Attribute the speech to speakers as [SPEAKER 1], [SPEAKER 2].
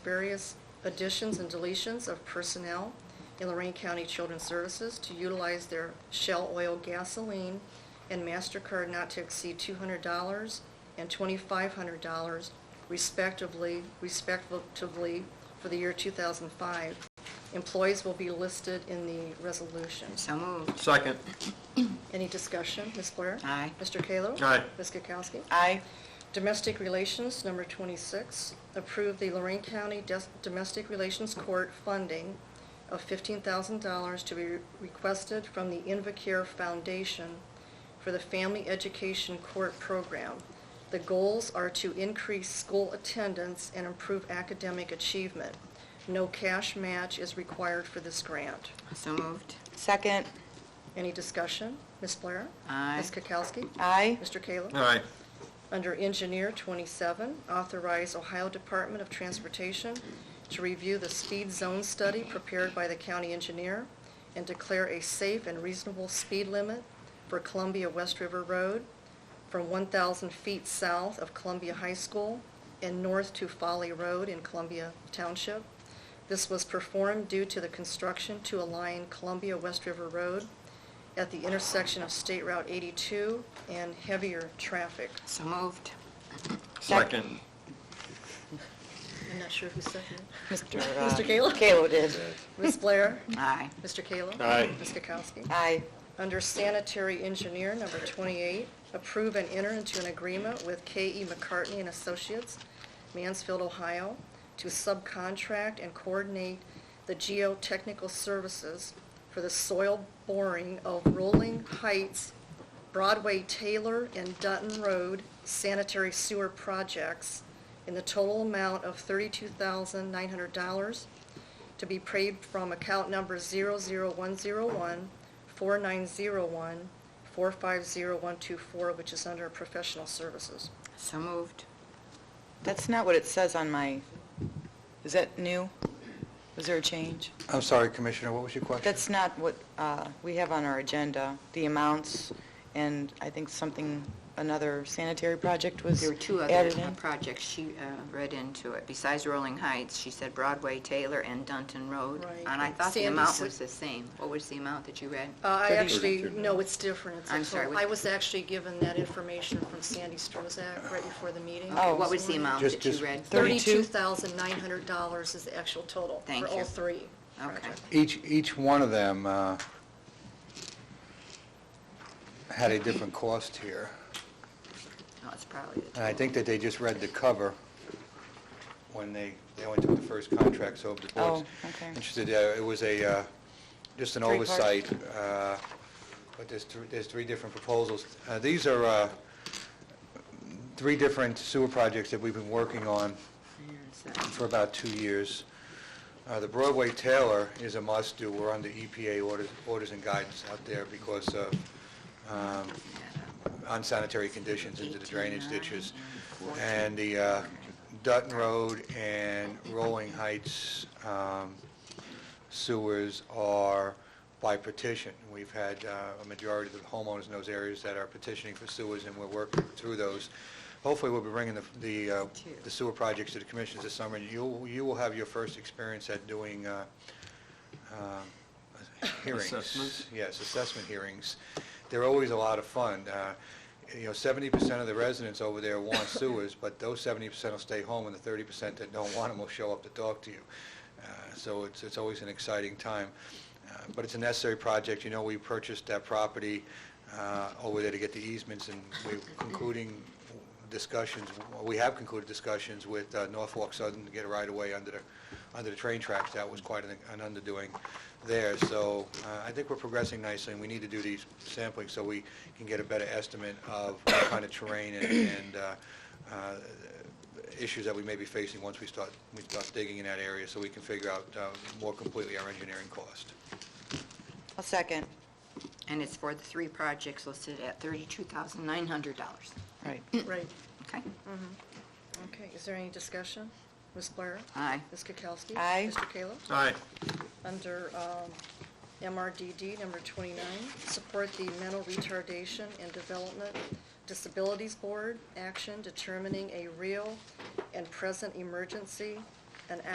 [SPEAKER 1] various additions and deletions of personnel in Lorraine County Children's Services to utilize their Shell Oil gasoline and MasterCard not to exceed $200 and $2,500 respectively, respectively for the year 2005. Employees will be listed in the resolution.
[SPEAKER 2] So moved.
[SPEAKER 3] Second.
[SPEAKER 1] Any discussion? Ms. Blair?
[SPEAKER 2] Aye.
[SPEAKER 1] Mr. Kallo?
[SPEAKER 3] Aye.
[SPEAKER 1] Ms. Kukowski?
[SPEAKER 2] Aye.
[SPEAKER 1] Domestic Relations, number 26, approve the Lorraine County Des- Domestic Relations Court funding of $15,000 to be requested from the Invacare Foundation for the Family Education Court Program. The goals are to increase school attendance and improve academic achievement. No cash match is required for this grant.
[SPEAKER 2] So moved.
[SPEAKER 4] Second,
[SPEAKER 1] Any discussion? Ms. Blair?
[SPEAKER 2] Aye.
[SPEAKER 1] Ms. Kukowski?
[SPEAKER 4] aye.
[SPEAKER 1] Mr. Kayla?
[SPEAKER 3] All right.
[SPEAKER 1] Under Engineer 27, authorize Ohio Department of Transportation to review the speed zone study prepared by the county engineer and declare a safe and reasonable speed limit for Columbia West River Road from 1,000 feet south of Columbia High School and north to Folly Road in Columbia Township. This was performed due to the construction to align Columbia West River Road at the intersection of State Route 82 and heavier traffic.
[SPEAKER 2] So moved.
[SPEAKER 3] Second.
[SPEAKER 1] I'm not sure who seconded.
[SPEAKER 4] Mr.
[SPEAKER 1] Mr. Kallo?
[SPEAKER 4] Kalo uh, did.
[SPEAKER 1] Ms. Blair?
[SPEAKER 2] Aye.
[SPEAKER 1] Mr. Kallo?
[SPEAKER 3] Aye.
[SPEAKER 1] Ms. Kukowski?
[SPEAKER 4] Aye.
[SPEAKER 1] Under sanitary engineer, number 28, approve and enter into an agreement with K.E. McCartney and Associates, Mansfield, Ohio, to subcontract and coordinate the geotechnical services for the soil boring of Rolling Heights, Broadway Taylor, and Dutton Road sanitary sewer projects in the total amount of $32,900 to be paid from account number 00101 4901 450124, which is under professional services.
[SPEAKER 2] So moved.
[SPEAKER 4] That's not what it says on my, is that new? Was there a change?
[SPEAKER 5] I'm sorry, Commissioner, what was your question?
[SPEAKER 4] That's not what uh, we have on our agenda, the amounts, and I think something, another sanitary project was
[SPEAKER 2] There were two other
[SPEAKER 4] added
[SPEAKER 2] uh,
[SPEAKER 4] in.
[SPEAKER 2] projects she uh, read into it. Besides Rolling Heights, she said Broadway, Taylor, and Dunton Road.
[SPEAKER 1] Right.
[SPEAKER 2] And I thought the
[SPEAKER 1] Sandy
[SPEAKER 2] amount
[SPEAKER 1] said-
[SPEAKER 2] was the same. What was the amount that you read?
[SPEAKER 1] Uh, I
[SPEAKER 4] Thirty-
[SPEAKER 1] actually, no, it's different. It's a
[SPEAKER 2] I'm sorry,
[SPEAKER 1] total-
[SPEAKER 2] what-
[SPEAKER 1] I was actually given that information from Sandy Strozak right before the meeting.
[SPEAKER 4] Oh.
[SPEAKER 2] Okay, Oh, What was the amount
[SPEAKER 5] Just-
[SPEAKER 2] that you
[SPEAKER 5] just-
[SPEAKER 2] read?
[SPEAKER 4] Thirty-two?
[SPEAKER 1] $32,900 is the actual total
[SPEAKER 2] Thank
[SPEAKER 1] for all
[SPEAKER 2] you.
[SPEAKER 1] three.
[SPEAKER 2] Okay.
[SPEAKER 1] projects.
[SPEAKER 5] Each, each one of them uh, had a different cost here,
[SPEAKER 2] No, it's probably the
[SPEAKER 5] and I think that they just read the cover when they, they only took the first contract, so if the board's
[SPEAKER 4] Oh, okay.
[SPEAKER 5] interested, uh, it was a, uh, just an
[SPEAKER 4] Three parts.
[SPEAKER 5] oversight, uh, but there's, thr- there's three different proposals. Uh, These are uh, three different sewer projects that we've been working on
[SPEAKER 2] two.
[SPEAKER 5] for about two years. Uh, The Broadway Taylor is a must-do. We're under EPA orders orders and guidance out there because of um, unsanitary conditions into the drainage ditches. And the uh, Dutton Road and Rolling Heights um, sewers are by petition. We've had uh, a majority of the homeowners in those areas that are petitioning for sewers, and we're working through those. Hopefully, we'll be bringing the- the uh, the sewer projects to the commissions this summer, and you'll- you will have your first experience at doing uh, uh, hearings.
[SPEAKER 3] Assessments?
[SPEAKER 5] Yes, assessment hearings. They're always a lot of fun. Uh, You know, 70% of the residents over there want sewers, but those 70% will stay home, and the 30% that don't want them will show up to talk to you. Uh, So it's, it's always an exciting time. Uh, But it's a necessary project. You know, we purchased that property uh, over there to get the easements, and we're concluding discussions, we have concluded discussions with uh, Norfolk Southern to get a right-of-way under the, under the train tracks. That was quite an an underdoing there. So uh, I think we're progressing nicely, and we need to do these sampling so we can get a better estimate of what kind of terrain and- and uh, uh, issues that we may be facing once we start, we start digging in that area, so we can figure out uh, more completely our engineering cost.
[SPEAKER 4] A second.
[SPEAKER 2] And it's for the three projects listed at $32,900.
[SPEAKER 4] Right.
[SPEAKER 2] Mm.
[SPEAKER 1] Right.
[SPEAKER 2] Okay?
[SPEAKER 1] Okay, is there any discussion? Ms. Blair?
[SPEAKER 2] Aye.
[SPEAKER 1] Ms. Kukowski?
[SPEAKER 4] Aye.
[SPEAKER 1] Mr. Kallo?
[SPEAKER 3] All right.
[SPEAKER 1] Under um, MRDD, number 29, support the Mental Retardation and Development Disabilities Board action determining a real and present emergency